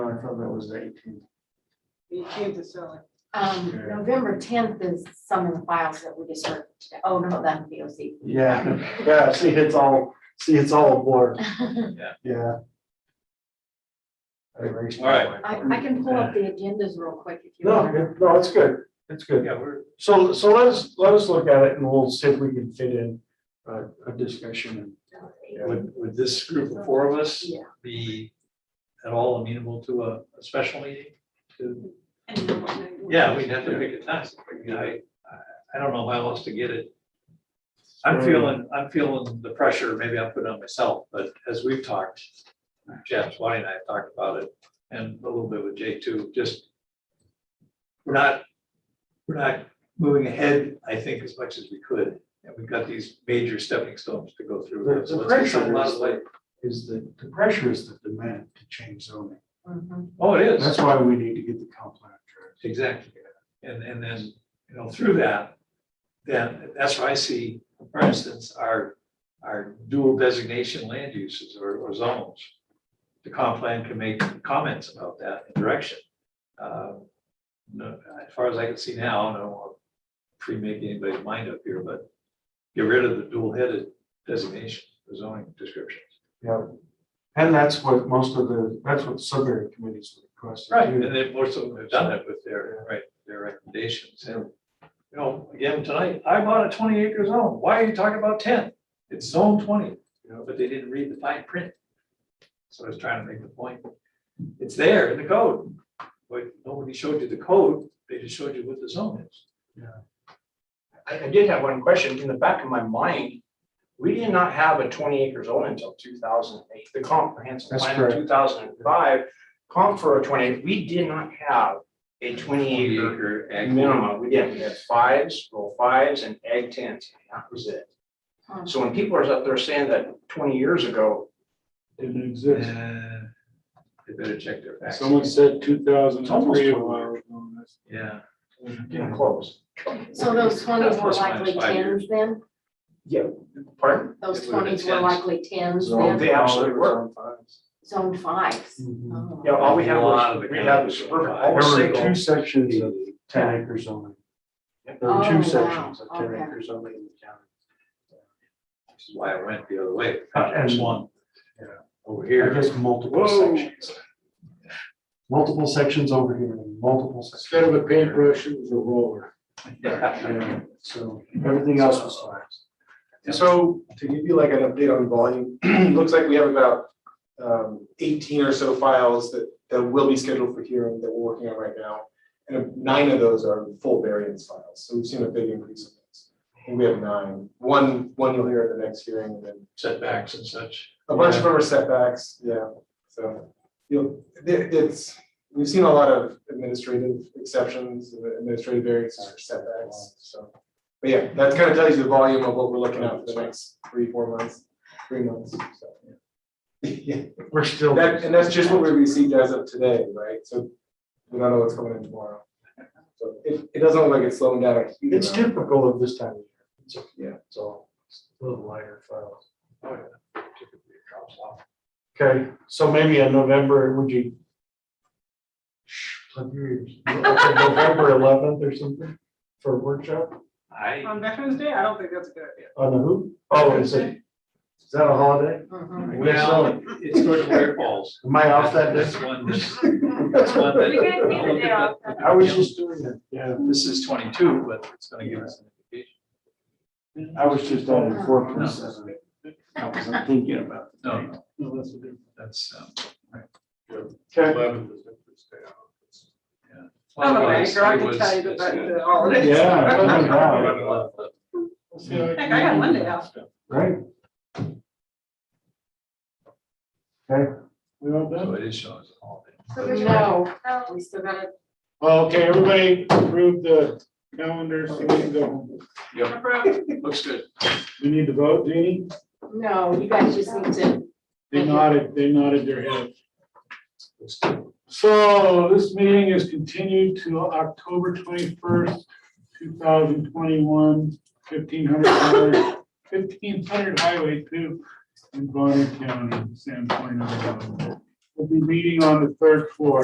thought that was eighteen. Eighteenth is selling. Um, Yeah. November tenth is some of the files that we just heard today. Oh, no, that's the Yeah, yeah, see, it's all, see, it's all a blur, OC. yeah. I erased All right. I, I can pull up the agendas real quick if you No, want. it- no, it's good, it's good. Yeah, we're, So, so let's, let us look at it and we'll see if we can fit in a, a discussion. would, would this group of four of us Yeah. be at all amenable to a, a special meeting? To- Yeah, we'd have to pick a time. You know, I, I- I don't know how else to get it. I'm Right. feeling, I'm feeling the pressure, maybe I'm putting it on myself, but as we've talked, Jeff, Swanee and I have talked about it, and a little bit with Jay too, just we're not, we're not moving ahead, I think, as much as we could. And we've got these major stepping stones to go The- through. the So let's get some pressure is- last like- Is the, the pressure is the demand to change zoning. Mhm. Oh, it is. That's why we need to get the comp plan addressed. Exactly. And, and then, you know, through that, then that's where I see, for instance, our, our dual designation land uses or, or zones. The comp plan can make comments about that and direction. Um, No, as far as I can see now, and I don't want to pre-make anybody's mind up here, but get rid of the dual-headed designation, the zoning descriptions. Yeah. And that's what most of the, that's what subsidiary committees request. And then most of them have done that with their, right, their recommendations. And, you know, again, tonight, I bought a twenty acre zone. Why are you talking about ten? It's zone twenty, you know, but they didn't read the fine print. So I was trying to make the point. It's there in the code, but nobody showed you the code. They just showed you what the zone is. I, I did have one question. In the back of my mind, we did not have a twenty acre zone until two thousand and eight, the comprehensive That's plan correct. in two thousand and five. Comp for a twenty, we did not have a twenty acre minimum. We didn't, we had fives, roll fives and egg tents, and that was it. Hmm. So when people are up there saying that twenty years ago, Didn't exist. Uh, They better check their facts. Someone said two thousand It's almost and three a twenty while years. ago. That's- Yeah, Mm-hmm. getting close. So those twenties were plus minus likely five years. tens then? Yeah, pardon? Those It would've been twenties were tens. likely tens Zone then, They absolutely were. fives. zone fives. Mhm. Oh. Yeah, all we had A lot was, of the we had counties were was suburban, five. all There were single. two sections of ten acre zoning. There were Oh, wow. two sections of ten Okay. acre zoning in the county. which is why I went the other way. Uh, and- one. Yeah. Over I here. guess multiple Whoa. sections. Multiple sections over here, and multiple sections. Instead of a paintbrush, it was a roller. Yeah, So everything else was fives. So to give you like an update on volume, looks like we have about um eighteen or so files that that will be scheduled for hearing that we're working on right now. And nine of those are full variance files, so we've seen a big increase in those. And we have nine. One, one you'll hear at the next hearing and then Setbacks and such. a bunch of Yeah. them are setbacks, yeah. So you'll, there it's, we've seen a lot of administrative exceptions, administrative variances or setbacks, so. But yeah, that kind of tells you the volume of what we're looking at for the next three, four months, three months, so. Yeah, We're still. that, and that's just what we received as of today, right? So we don't know what's coming in tomorrow. So it, it doesn't look like it's slowing down a huge It's amount. typical of this time of year. It's, Yeah. it's all a little lighter files. Oh, yeah. Typically it drops off. Okay, so maybe in November, would you? Shh, plug your ears. Okay, November eleventh or something for a workshop I, On Veterans Day, I don't think that's a good idea. on the who? Oh, is it, is that a holiday? Mhm. We're well, selling. it's sort of where it falls. Am I off that That's day? one, that's that's one that. You guys need a day off. I was just doing it, yeah. This is twenty-two, but it's gonna give us an indication. I was just on the fourth No. percent. I wasn't thinking about it. No, no, No, that's a different. that's, um. Okay. I'm a banker, Oh, I can was- uh, tell you that it's that's good. the holidays. Yeah, it doesn't matter, Heck, I got Monday off. right? Okay, We all done? So it is showing us all. No, we still gotta Okay, everybody approve the calendar, so we can go. home. Looks good. We need to vote, Jeannie? No, you guys just need to, They Thank you. nodded, they nodded their head. So this meeting is continued to October twenty-first, two thousand twenty-one, fifteen hundred, fifteen hundred Highway two in Bonner County, San Point. Idaho. We'll be meeting on the third floor.